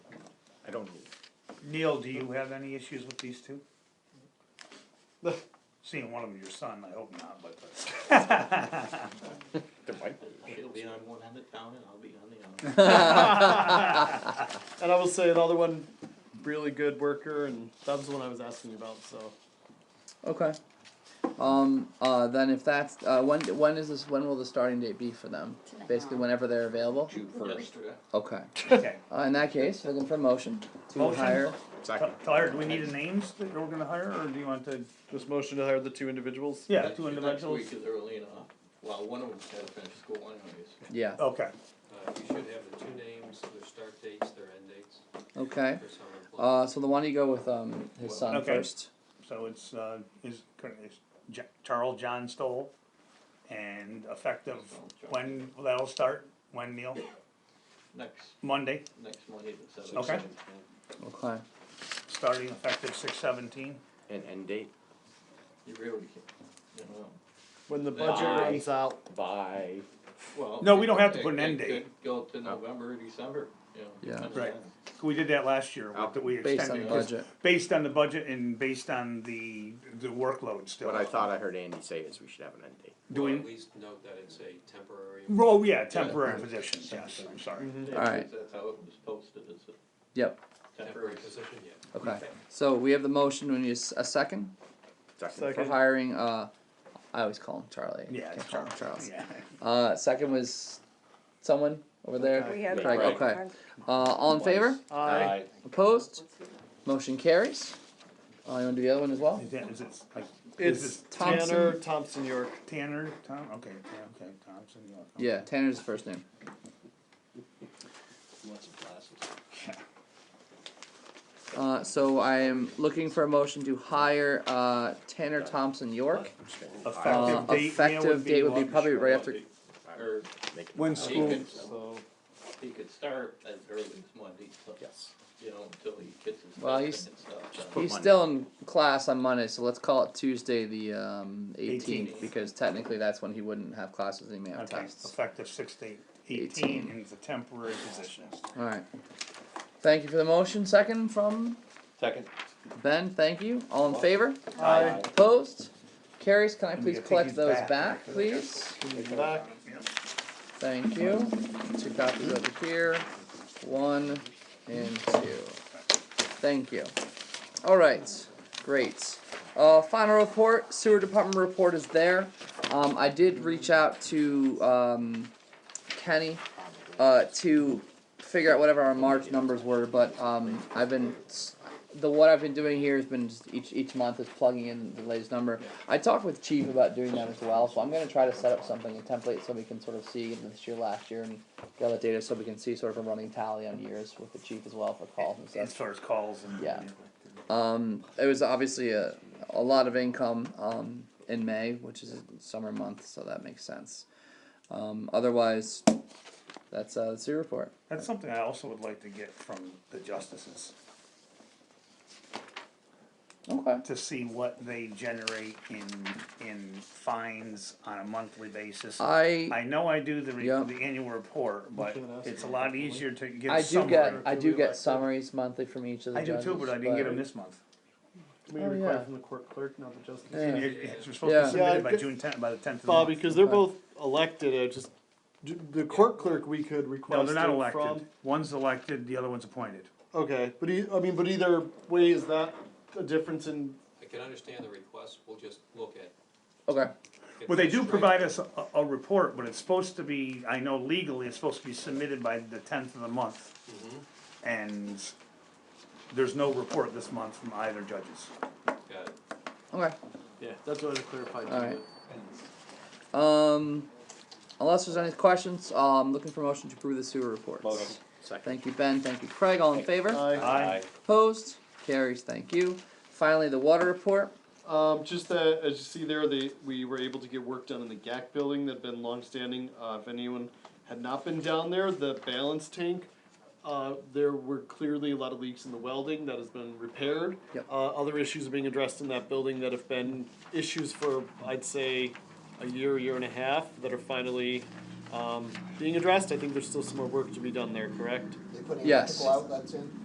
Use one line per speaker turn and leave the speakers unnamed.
I don't,
Neil, do you have any issues with these two? Seeing one of them your son, I hope not, but.
there might be.
She'll be on one end of town and I'll be on the other.
And I will say another one, really good worker, and that was the one I was asking you about. So
Okay. Um. Uh. Then if that's uh. When when is this? When will the starting date be for them?
Tonight.
Basically, whenever they're available.
June first.
Yesterday.
Okay.
Okay,
Uh, in that case, looking for a motion to
Motion.
hire.
Second.
Tyler, do we need the names that we're gonna hire, or do you want to,
just motion to hire the two individuals.
yeah,
Next-
two individuals?
Next week is early enough. Well, one of them's gotta finish school anyways.
Yeah.
Okay,
Uh, you should have the two names, their start dates, their end dates
Okay.
for summer. employees.
Uh. So the one you go with um his son
Okay.
first.
so it's, uh, is, is Ja- Charles John Stoll, and effective, when, that'll start, when, Neil?
Next,
Monday,
next Monday the seventh.
Okay.
Okay.
starting effective six seventeen.
And end date
You really can't, you know.
When the budget
Aye.
runs out,
by,
Well.
No, we don't have to
it-
put an
it
end date.
could Go to November, December, you know.
Yeah.
depends
Right.
on-
We did that last year,
Uh,
that we
Based on
extended,
the
Yeah.
just
budget.
based on the budget and based on the, the workload still.
what I thought I heard Andy say is we should have an end date.
Do
Or
we,
At least note that it's a temporary.
oh, yeah, temporary positions, yes, I'm sorry.
Yeah,
Alright.
because That's how it was posted, it's a
Yep.
temporary.
Temporary position, yeah.
Okay. So we have the motion. We need a s- a second
Second.
Second.
for hiring. Uh. I always call him Charlie.
Yeah,
Can't
it's
call him
hard.
Charles.
Yeah.
Uh. Second was someone over there.
Okay.
We had.
Craig.
Craig.
Okay. Uh. All in favor?
I
Aye.
Opposed? Motion carries. Uh, you wanna do the other one as well?
Is that- is it, like, is
it's
this
Thompson.
Tanner Thompson York.
Tanner, Tom, okay, yeah, okay, Thompson, yeah. okay.
Yeah, Tanner's the first name.
Lots of classes.
Uh, so I am looking for a motion to hire, uh, Tanner Thompson York. Uh,
Effective date, yeah,
effective date would be
what?
probably right after,
Or
Make it-
When
he
school,
could,
So
he could start as early as Monday, so,
Yes.
you know, until he gets his.
Well,
testing
he's-
and stuff, so.
he's still in class on Monday, so let's call it Tuesday, the, um, eighteenth,
18th.
because technically that's when he wouldn't have classes and he may have
okay,
tests.
effective six to eight- eighteen, and it's a temporary position.
Alright. Thank you for the motion. Second from
Second.
Ben, thank you. All in favor?
I
Opposed? Carries, can I
I'm
please
gonna take
collect
these
those
back.
back, please?
back.
Thank you. Two copies over here, one and two. Thank you. All right, great. Uh, final report, sewer department report is there. Um, I did reach out to, um, Kenny, uh, to figure out whatever our March numbers were, but, um, I've been, s- the, what I've been doing here has been just each, each month is plugging in the latest number. I talked with Chief about doing that as well, so I'm gonna try to set up something, a template, so we can sort of see this year, last year, and get all the data, so we can see sort of a running tally on years with the chief as well for calls and stuff.
As far as calls and.
Yeah. Um, it was obviously a, a lot of income um, in May, which is a summer month, so that makes sense. Um, otherwise, that's uh, the sewer report.
That's something I also would like to get from the justices,
Okay.
to see what they generate in, in fines on a monthly basis. I
I
know I do the, re-
Yeah.
the annual report, but
You can ask
it's a
them
lot
definitely.
easier to get
I
a
do
summary.
Can
get I do
we
get
elect them?
summaries monthly from each of the
I do too,
judges,
but I didn't get them this month.
Can we
Oh,
require
yeah.
from the court clerk, not the justice.
Yeah.
It- It's supposed to
Yeah.
be
Yeah,
submitted by
good-
June tenth, by the tenth of the month.
Bobby, because they're
Okay.
both elected. I just d- the court clerk we could request.
No, they're not
it
elected.
From.
One's elected, the other one's appointed.
Okay, but e- I mean, but either way, is that a difference in?
I can understand the request, we'll just look at.
Okay.
Well, they do provide us a, a report, but it's supposed to be, I know legally, it's supposed to be submitted by the tenth of the month.
Mm-hmm.
And there's no report this month from either judges.
Got it.
Okay.
Yeah, that's what I clarified.
All right. Um, unless there's any questions, uh, I'm looking for motion to approve the sewer reports.
Second.
Thank you, Ben. Thank you, Craig. All in favor?
Aye.
Opposed? Carries. Thank you. Finally, the water report.
Um, just that, as you see there, they, we were able to get work done in the GAC building that had been longstanding. Uh, if anyone had not been down there, the balance tank, uh, there were clearly a lot of leaks in the welding that has been repaired.
Yep.
Uh, other issues are being addressed in that building that have been issues for, I'd say, a year, year and a half that are finally, um, being addressed. I think there's still some more work to be done there, correct?
They put
Yes.
electrical outlets in.